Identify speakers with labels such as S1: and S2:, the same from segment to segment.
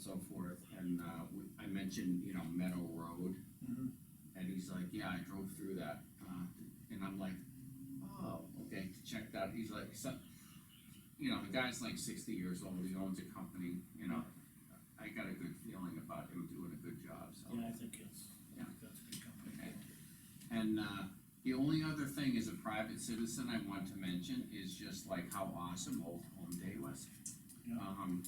S1: so forth, and, uh, we- I mentioned, you know, Meadow Road.
S2: Mhm.
S1: And he's like, yeah, I drove through that, uh, and I'm like, oh, okay, check that, he's like, so, you know, the guy's like sixty years old, he owns a company, you know, I got a good feeling about him doing a good job, so.
S2: Yeah, I think it's,
S1: Yeah.
S2: that's a good company.
S1: Okay. And uh, the only other thing as a private citizen I want to mention is just like how awesome Old Home Day was.
S2: Yeah.
S1: Um,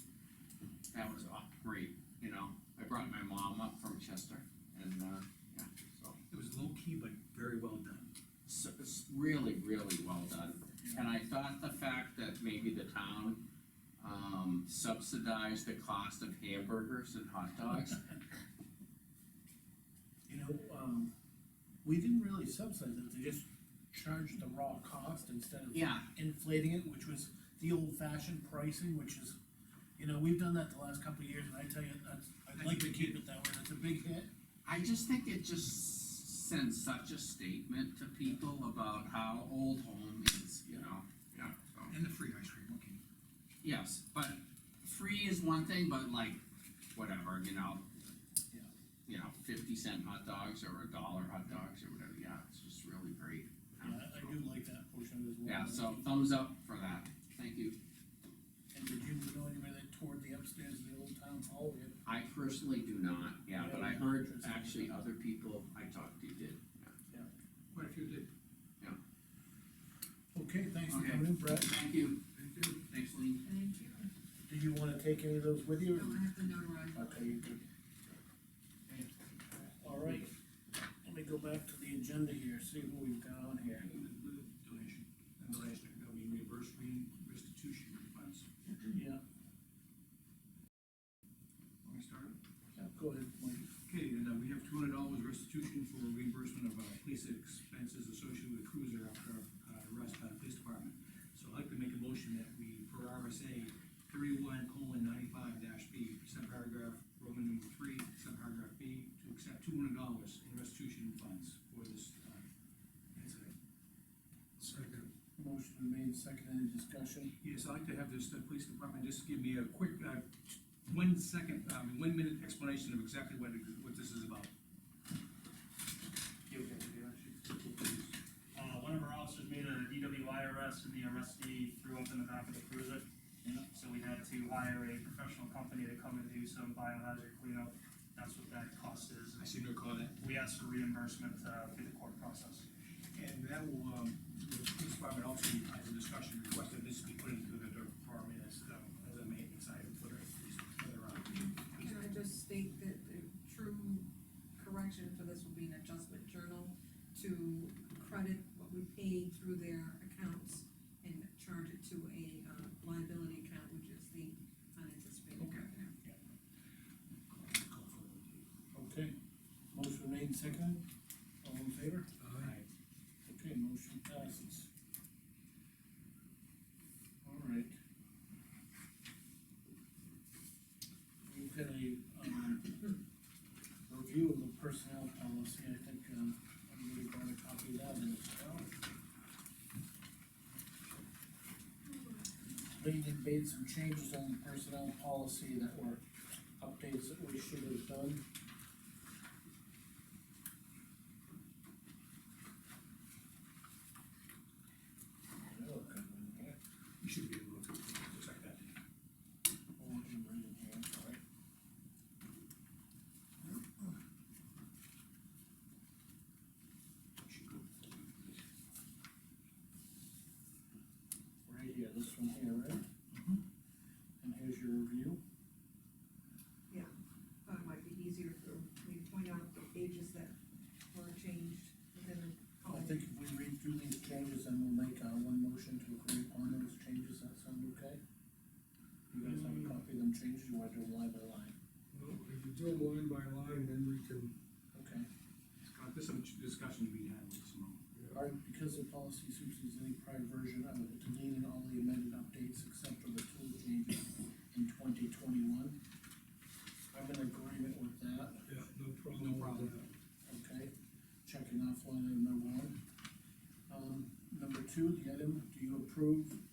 S1: that was aw- great, you know, I brought my mom up from Chester and, uh, yeah, so.
S3: It was low key, but very well done.
S1: So it's really, really well done. And I thought the fact that maybe the town um, subsidized the cost of hamburgers and hot dogs.
S2: You know, um, we didn't really subsidize it, they just charged the raw cost instead of
S1: Yeah,
S2: inflating it, which was the old fashioned pricing, which is, you know, we've done that the last couple of years, and I tell you, that's, I'd like to keep it that way, that's a big hit.
S1: I just think it just sends such a statement to people about how old home is, you know? Yeah.
S3: And the free ice cream, okay.
S1: Yes, but free is one thing, but like, whatever, you know?
S2: Yeah.
S1: You know, fifty cent hot dogs or a dollar hot dogs or whatever, yeah, it's just really great.
S2: Yeah, I- I do like that portion of it as well.
S1: Yeah, so thumbs up for that, thank you.
S2: And did you know anybody that toured the upstairs of the old town hall yet?
S1: I personally do not, yeah, but I heard
S2: Yeah.
S1: actually other people I talked to did.
S3: Quite a few did.
S2: Okay, thanks for
S1: Okay.
S2: coming in, Brett,
S1: Thank you,
S3: Thank you.
S1: thanks Lean.
S4: Thank you.
S2: did you wanna take any of those with you?
S4: No, I have to notarize.
S2: Okay, you're good. All right, let me go back to the agenda here, see what we've got on here.
S3: Donation, and the last, I mean, reimbursed restitution funds.
S2: Yeah,
S3: Want me to start?
S2: yeah, go ahead, Mike.
S3: Okay, and uh, we have two hundred dollars restitution for reimbursement of uh, police expenses associated with cruiser after uh, arrest by the police department. So I'd like to make a motion that we, per RSA thirty-one colon ninety-five dash B, subparagraph Roman number three, subparagraph B, to accept two hundred dollars in restitution funds for this uh, incident. Second.
S2: Motion been made, second, any discussion?
S3: Yes, I'd like to have this, the police department just give me a quick, uh, one second, um, one minute explanation of exactly what, it- what this is about.
S5: Uh, one of our officers made E a DWI arrest and the arrestee threw up in the back of the cruiser.
S2: Yeah.
S5: So we had to hire a professional company to come and do some biohazard cleanup. That's what that cost is.
S3: I seem to recall that.
S5: We asked for reimbursement, uh, through the court process.
S3: And that will, um, the police department also has a discussion request that this be put into the department as, um, as a maintenance item for their, for their, um,
S4: Can I just state that the true correction for this will be an adjustment journal to credit what we paid through their accounts and charge it to a uh, liability account, which is the uh, unanticipated
S3: Okay.
S4: revenue.
S2: Okay, motion made, second, all in favor? Okay, motion passes. All right. We've got a, um, review of the personnel policy, I think, um, everybody brought a copy of that in. Lee made some changes on the personnel policy that were updates that we should have done. That looked good, wasn't it?
S3: you should be able to protect that.
S2: Hold it right in here, sorry.
S3: Should go.
S2: Right here, this one here, right? And here's your review.
S4: Thought it might be easier for me to point out the pages that were changed within the.
S2: I think if we read through these changes, then we'll make, uh, one motion to agree upon those changes, that sound okay? You guys have a copy of them changes, you wanna do them line by line?
S6: Well, if you do them line by line, then we can,
S2: Okay.
S3: Scott, there's some discussion to be had with Simone.
S2: All right, because the policy supersedes any prior version of it, deleting all the amended updates except for the two changes in twenty twenty-one. I'm in agreement with that.
S6: yeah, no problem.
S3: No problem.
S2: Okay, checking off line item number one. Um, number two, the item, do you approve